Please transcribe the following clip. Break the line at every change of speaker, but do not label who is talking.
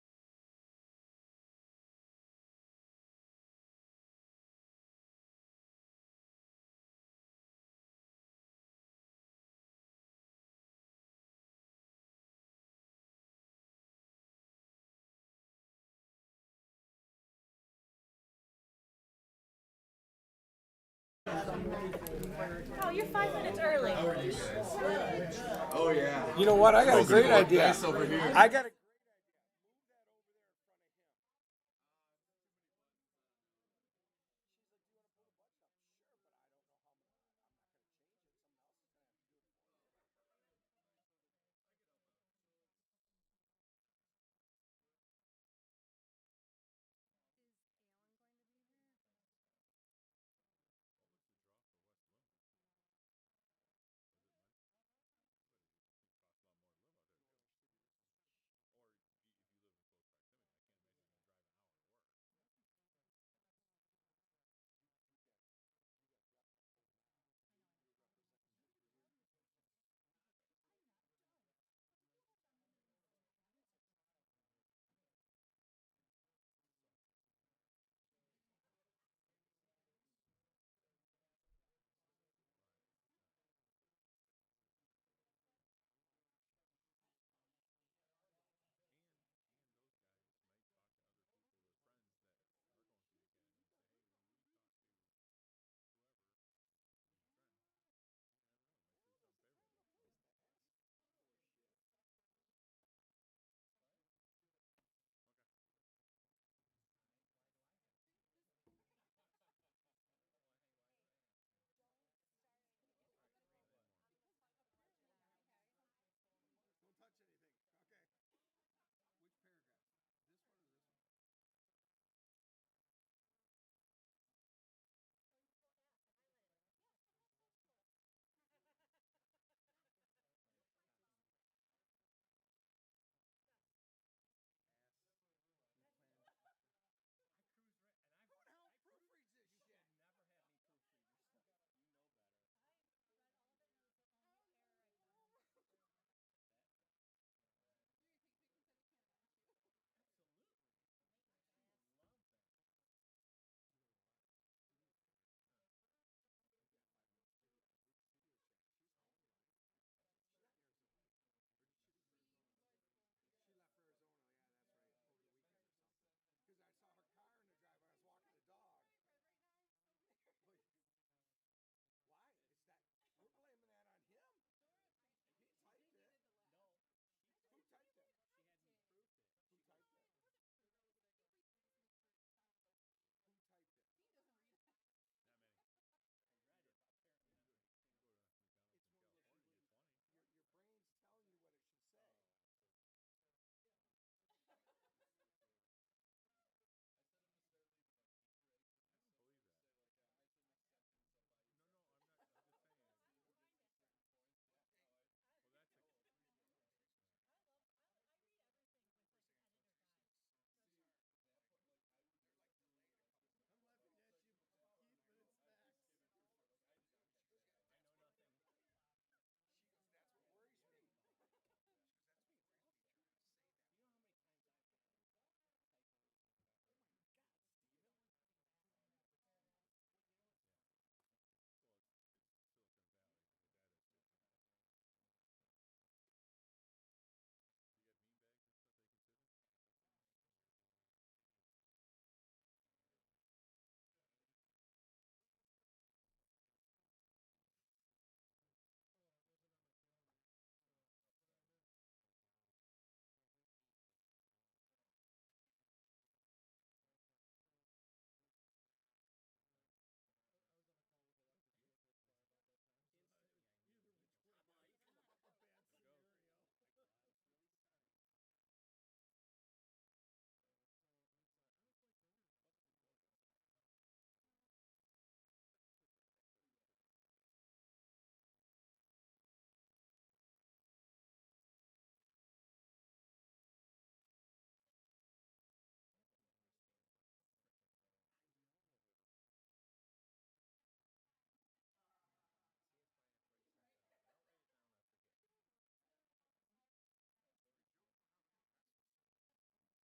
Oh, you're five minutes early.
Oh yeah.
You know what? I got a
Open
great
door.
idea.
Nice over here.
I got a